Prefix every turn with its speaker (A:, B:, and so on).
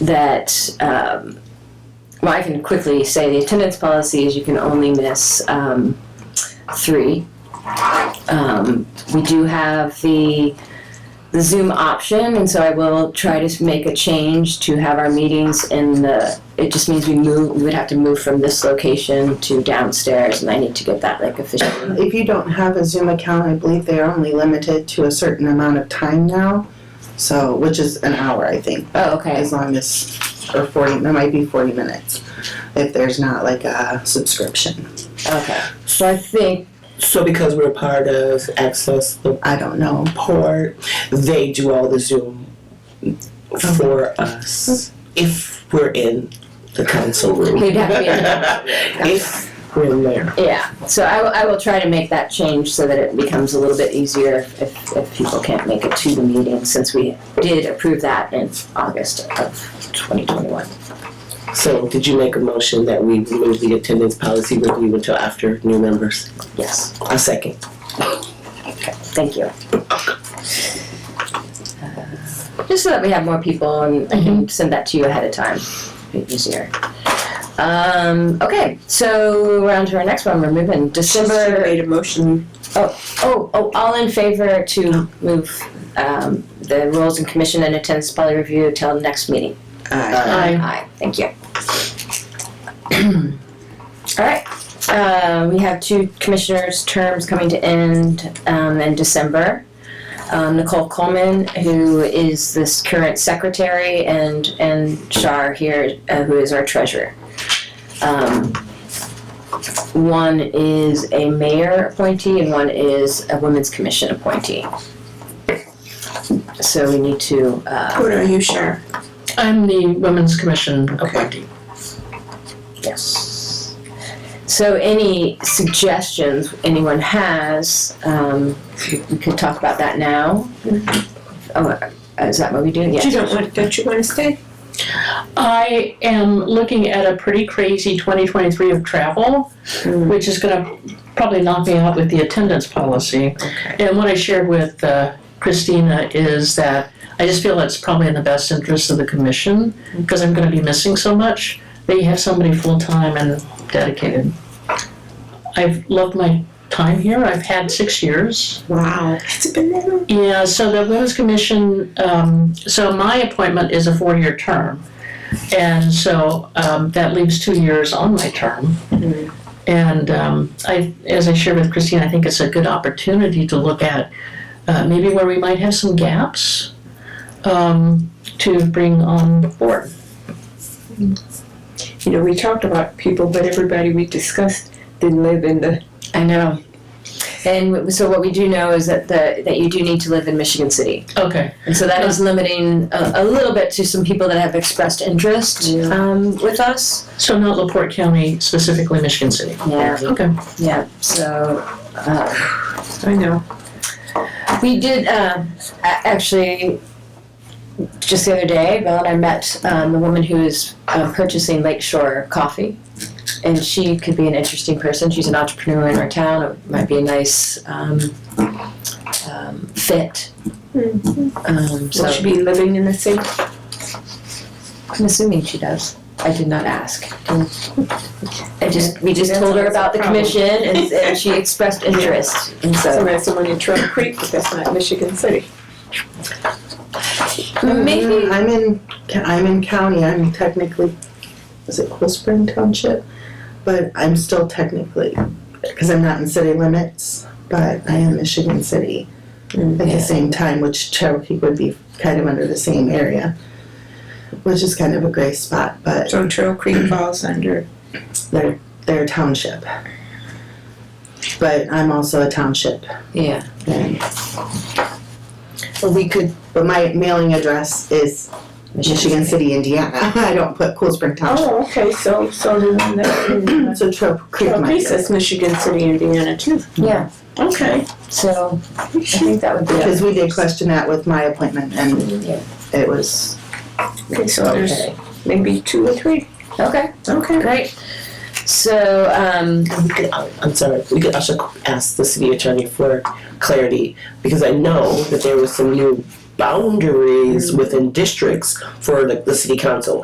A: that, um, well, I can quickly say the attendance policy is you can only miss um, three. Um, we do have the the Zoom option, and so I will try to s- make a change to have our meetings in the. It just means we move. We would have to move from this location to downstairs, and I need to get that like officially.
B: If you don't have a Zoom account, I believe they are only limited to a certain amount of time now. So, which is an hour, I think,
A: Oh, okay.
B: as long as, or forty, that might be forty minutes, if there's not like a subscription.
A: Okay. So I think.
C: So because we're part of Access the
B: I don't know.
C: Port, they do all the Zoom for us if we're in the council room.
A: We'd have to be in the
C: If we're in there.
A: Yeah, so I, will- I will try to make that change so that it becomes a little bit easier if, if, if people can't make it to the meeting, since we did approve that in August of 2021.
C: So did you make a motion that we remove the attendance policy review until after new members?
A: Yes,
C: A second.
A: thank you. Uh, Just so that we have more people and I can send that to you ahead of time, Be easier. Um, okay, so we're on to our next one, we're moving December.
D: Made a motion.
A: Oh, oh, all in favor to move um, the rules and commission and attendance policy review till next meeting?
B: I
A: Aye, thank you. All right, uh, we have two commissioners' terms coming to end um, in December. Um, Nicole Coleman, who is this current secretary, and, and Shar here, uh, who is our treasurer. Um, One is a mayor appointee and one is a women's commission appointee. So we need to, uh,
D: What are you, Cher?
E: I'm the Women's Commission appointee.
A: Yes. So any suggestions anyone has, um, we could talk about that now. Oh, is that what we do?
D: You
A: Yes.
D: don't want, don't you want to stay?
E: I am looking at a pretty crazy 2023 of travel, which is going to probably knock me out with the attendance policy. And what I shared with uh, Christina is that I just feel it's probably in the best interest of the commission because I'm going to be missing so much. They have somebody full time and dedicated. I've loved my time here. I've had six years.
D: Wow. It's been that long.
E: Yeah, so the Women's Commission, um, so my appointment is a four-year term. And so, um, that leaves two years on my term. And, um, I, as I shared with Christine, I think it's a good opportunity to look at, uh, maybe where we might have some gaps, um, to bring on board.
D: You know, we talked about people, but everybody we discussed didn't live in the.
A: I know. And w- so what we do know is that the, that you do need to live in Michigan City.
E: Okay.
A: And so that is
D: Oh.
A: limiting a, a little bit to some people that have expressed interest,
D: Yeah.
A: um, with us.
E: So not LaPorte County, specifically Michigan City.
A: Yeah,
E: Okay.
A: yeah, so, uh,
D: I know.
A: We did um, a- actually just the other day. Bill and I met um, the woman who is um, purchasing Lakeshore Coffee, and she could be an interesting person. She's an entrepreneur in our town. It might be a nice um, um, fit. Um, so
D: Will she be living in the same?
A: I'm assuming she does. I did not ask.
B: Um,
A: I just we just told her about the commission, and, and she expressed interest, and
D: So
A: so
D: that's the one in Trail Creek, but that's not Michigan City.
A: maybe.
B: Mm-hmm. I'm in, I'm in county, I'm technically, is it Cool Spring Township? But I'm still technically, because I'm not in city limits, but I am Michigan City at
D: Mm,
A: yeah.
B: the same time, which Cherokee would be kind of under the same area, which is kind of a gray spot, but
D: So Trail Creek falls under.
B: they're, they're a township. But I'm also a township,
A: Yeah.
B: and we could, but my mailing address is Michigan City, Indiana. I don't put Cool Spring Township.
D: Oh, okay, so, so the one that. in, uh,
B: So Trail Creek
D: Trail
B: might
D: Creek
B: be.
D: says Michigan City, Indiana too.
A: Yeah.
D: Okay.
A: So I think that would be.
B: Because we did question that with my appointment and
A: Yeah.
B: it was,
D: Okay, so there's
A: Okay.
D: maybe two or three.
A: Okay.
D: Okay.
A: Great. So um,
C: We could, uh, I'm sorry, we could also ask the city attorney for clarity, because I know that there was some new boundaries within districts for the, the city council.